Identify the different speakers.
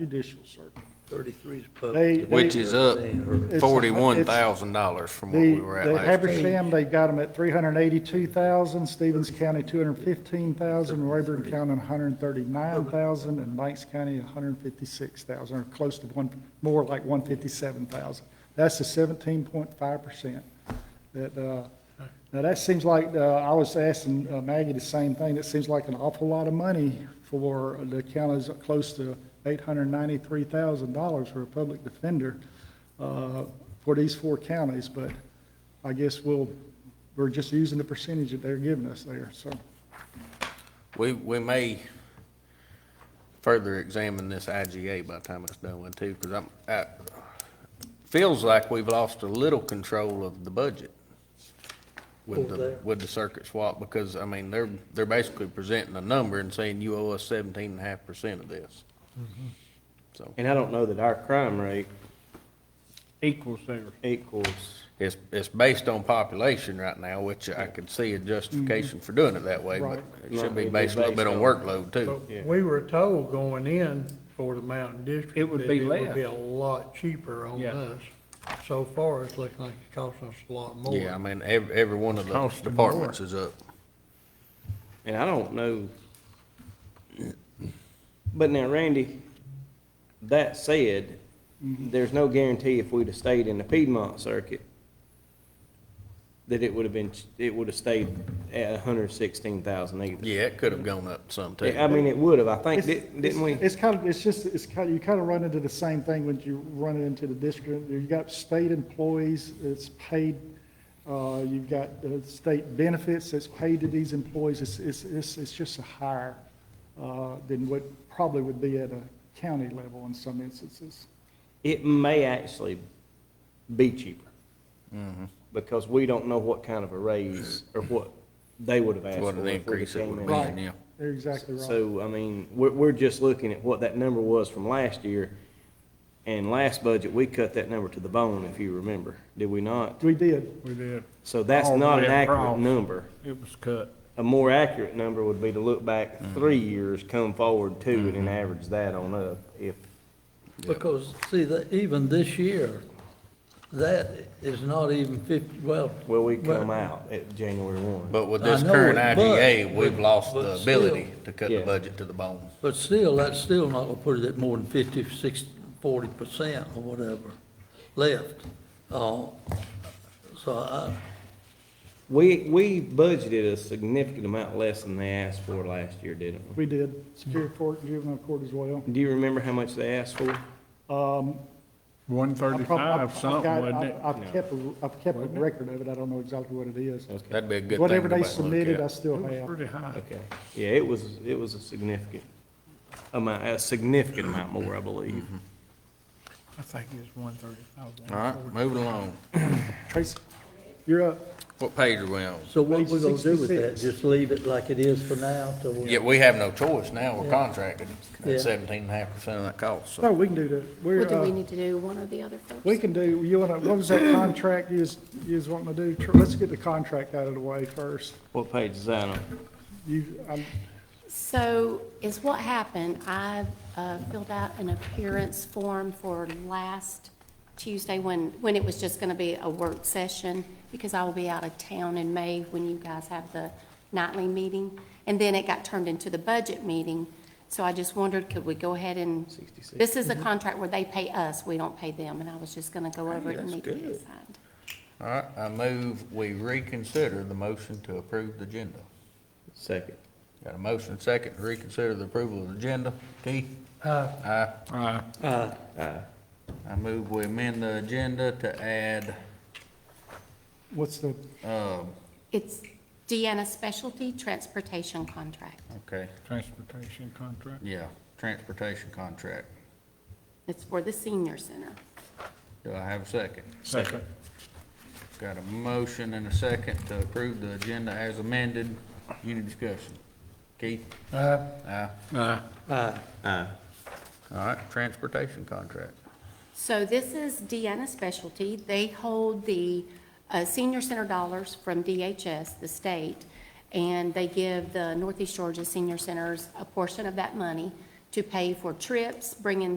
Speaker 1: judicial circuit.
Speaker 2: 33 is public.
Speaker 1: They-
Speaker 3: Which
Speaker 1: they-
Speaker 3: is up
Speaker 1: It's-
Speaker 3: forty-one thousand dollars from what
Speaker 1: The,
Speaker 3: we were at
Speaker 1: the
Speaker 3: last year.
Speaker 1: Habersham, they've got them at three hundred and eighty-two thousand, Stevens County, two hundred and fifteen thousand, Rayburn County, hundred and thirty-nine thousand, and Banks County, hundred and fifty-six thousand, or close to one, more like one fifty-seven thousand. That's the seventeen point five percent. That, uh, now that seems like, uh, I was asking uh, Maggie the same thing, it seems like an awful lot of money for the counties close to eight hundred and ninety-three thousand dollars for a public defender, uh, for these four counties, but I guess we'll, we're just using the percentage that they're giving us there, so.
Speaker 3: We, we may further examine this IGA by the time it's done with too, because I'm, I, feels like we've lost a little control of the budget with
Speaker 2: Over there.
Speaker 3: the, with the circuit swap, because, I mean, they're, they're basically presenting a number and saying you owe us seventeen and a half percent of this.
Speaker 1: Mm-hmm.
Speaker 3: So
Speaker 4: And I don't know that our crime rate. Equals theirs. Equals.
Speaker 3: it's, it's based on population right now, which I could see a justification for doing it that way, but
Speaker 1: Right.
Speaker 3: it should
Speaker 4: Right, it'd
Speaker 3: be
Speaker 4: be
Speaker 3: based a little bit on
Speaker 4: based
Speaker 3: workload too.
Speaker 4: Yeah.
Speaker 5: We were told going in for the Mountain District.
Speaker 6: It would
Speaker 5: that
Speaker 6: be
Speaker 5: It would
Speaker 6: less.
Speaker 5: be a lot cheaper on
Speaker 6: Yeah.
Speaker 5: us. So far, it's looking like it's costing us a lot more.
Speaker 3: Yeah, I mean, every, every one of the departments is up.
Speaker 4: And I don't know. But now, Randy, that said,
Speaker 1: Mm-hmm.
Speaker 4: there's no guarantee if we'd have stayed in the Piedmont circuit that it would have been, it would have stayed at hundred and sixteen thousand either.
Speaker 3: Yeah, it could have gone up some too.
Speaker 4: I mean, it would have, I think,
Speaker 1: It's-
Speaker 4: didn't didn't we?
Speaker 1: it's- It's kind of, it's just, it's kind, you kind of run into the same thing when you run into the district. You've got state employees, it's paid, uh, you've got uh, state benefits that's paid to these employees. It's, it's, it's, it's just a higher, uh, than what probably would be at a county level in some instances.
Speaker 4: it may actually be cheaper.
Speaker 3: Mm-hmm.
Speaker 4: Because we don't know what kind of a raise or what they would have asked for.
Speaker 3: What
Speaker 4: if
Speaker 3: an
Speaker 4: we'd have
Speaker 3: increase it
Speaker 4: came
Speaker 3: would
Speaker 4: in.
Speaker 3: be, yeah.
Speaker 1: You're exactly right.
Speaker 4: So, I mean, we're, we're just looking at what that number was from last year. And last budget, we cut that number to the bone, if you remember, did we not?
Speaker 1: We did.
Speaker 6: We did.
Speaker 4: So that's
Speaker 6: All the
Speaker 4: not
Speaker 6: way
Speaker 4: an accurate
Speaker 6: across.
Speaker 4: number.
Speaker 6: It was cut.
Speaker 4: A more accurate number would be to look back
Speaker 3: Mm-hmm.
Speaker 4: three years, come forward two, and then average that on up, if,
Speaker 2: Because, see, that even this year, that is not even 50, well.
Speaker 4: well, we
Speaker 2: well,
Speaker 4: come out at January one.
Speaker 3: But with
Speaker 2: I
Speaker 3: this
Speaker 2: know
Speaker 3: current
Speaker 2: it, but-
Speaker 3: IGA, we've lost
Speaker 2: but
Speaker 3: the
Speaker 2: still-
Speaker 3: ability to cut the
Speaker 4: Yeah.
Speaker 3: budget to the bone.
Speaker 2: But still, that's still not gonna put it at more than 50, 60, 40% or whatever left. Uh, So I,
Speaker 4: We, we budgeted a significant amount less than they asked for last year, didn't we?
Speaker 1: We did. Superior Court, juvenile court as well.
Speaker 4: Do you remember how much they asked for?
Speaker 1: Um,
Speaker 6: One
Speaker 1: I prob- I- I've
Speaker 6: thirty-five something,
Speaker 1: got-
Speaker 6: wasn't it?
Speaker 1: I- I've kept, a- I've kept a record of it, I don't know exactly what it is.
Speaker 3: That'd be a good thing.
Speaker 1: Whatever
Speaker 3: to
Speaker 1: they
Speaker 3: back look
Speaker 1: submitted,
Speaker 3: at.
Speaker 1: I still
Speaker 6: It was
Speaker 1: have.
Speaker 6: pretty high.
Speaker 4: Okay, yeah, it was, it was a significant amount, a significant amount more, I believe.
Speaker 6: I think it's one thirty-five.
Speaker 3: All right, moving along.
Speaker 1: Tracy, you're up.
Speaker 3: What page are we on?
Speaker 2: so what we gonna do with that?
Speaker 1: 66.
Speaker 2: Just leave it like it is for now till we.
Speaker 3: Yeah, we have no choice now. We're contracted
Speaker 2: Yeah.
Speaker 3: at seventeen and a half percent of that cost, so.
Speaker 1: No, we can do that. We're,
Speaker 7: Well, do we
Speaker 1: uh,
Speaker 7: need to do one or the other first?
Speaker 1: we can do, you wanna, what was that contract you was, you was wanting to do? Tr- Let's get the contract out of the way first.
Speaker 4: What page is that on?
Speaker 1: You, I'm,
Speaker 7: So is what happened, I uh, filled out an appearance form for last Tuesday when, when it was just going to be a work session because I will be out of town in May when you guys have the nightly meeting. And then it got turned into the budget meeting. So I just wondered, could we go ahead and,
Speaker 4: 66.
Speaker 7: this is a contract where they pay us, we don't pay them. And I was just going to go over it and
Speaker 4: that's
Speaker 7: need to get
Speaker 4: good.
Speaker 7: it signed.
Speaker 3: All right, I move we reconsider the motion to approve the agenda.
Speaker 4: Second.
Speaker 3: Got a motion second to reconsider the approval of the agenda. Keith? Aye.
Speaker 6: Aye.
Speaker 3: I move we amend the agenda to add,
Speaker 1: what's the,
Speaker 3: um,
Speaker 7: It's Deanna Specialty Transportation Contract.
Speaker 3: okay,
Speaker 6: Transportation contract.
Speaker 3: yeah, transportation contract.
Speaker 7: It's for the senior center.
Speaker 3: Do I have a second?
Speaker 6: Second.
Speaker 3: Got a motion and a second to approve the agenda as amended. Any discussion? Keith?
Speaker 5: Uh,
Speaker 3: Aye.
Speaker 6: Aye.
Speaker 4: Aye.
Speaker 3: All right, transportation contract.
Speaker 7: So this is Deanna Specialty. They hold the uh, senior center dollars from DHS, the state, and they give the Northeast Georgia Senior Centers a portion of that money to pay for trips, bringing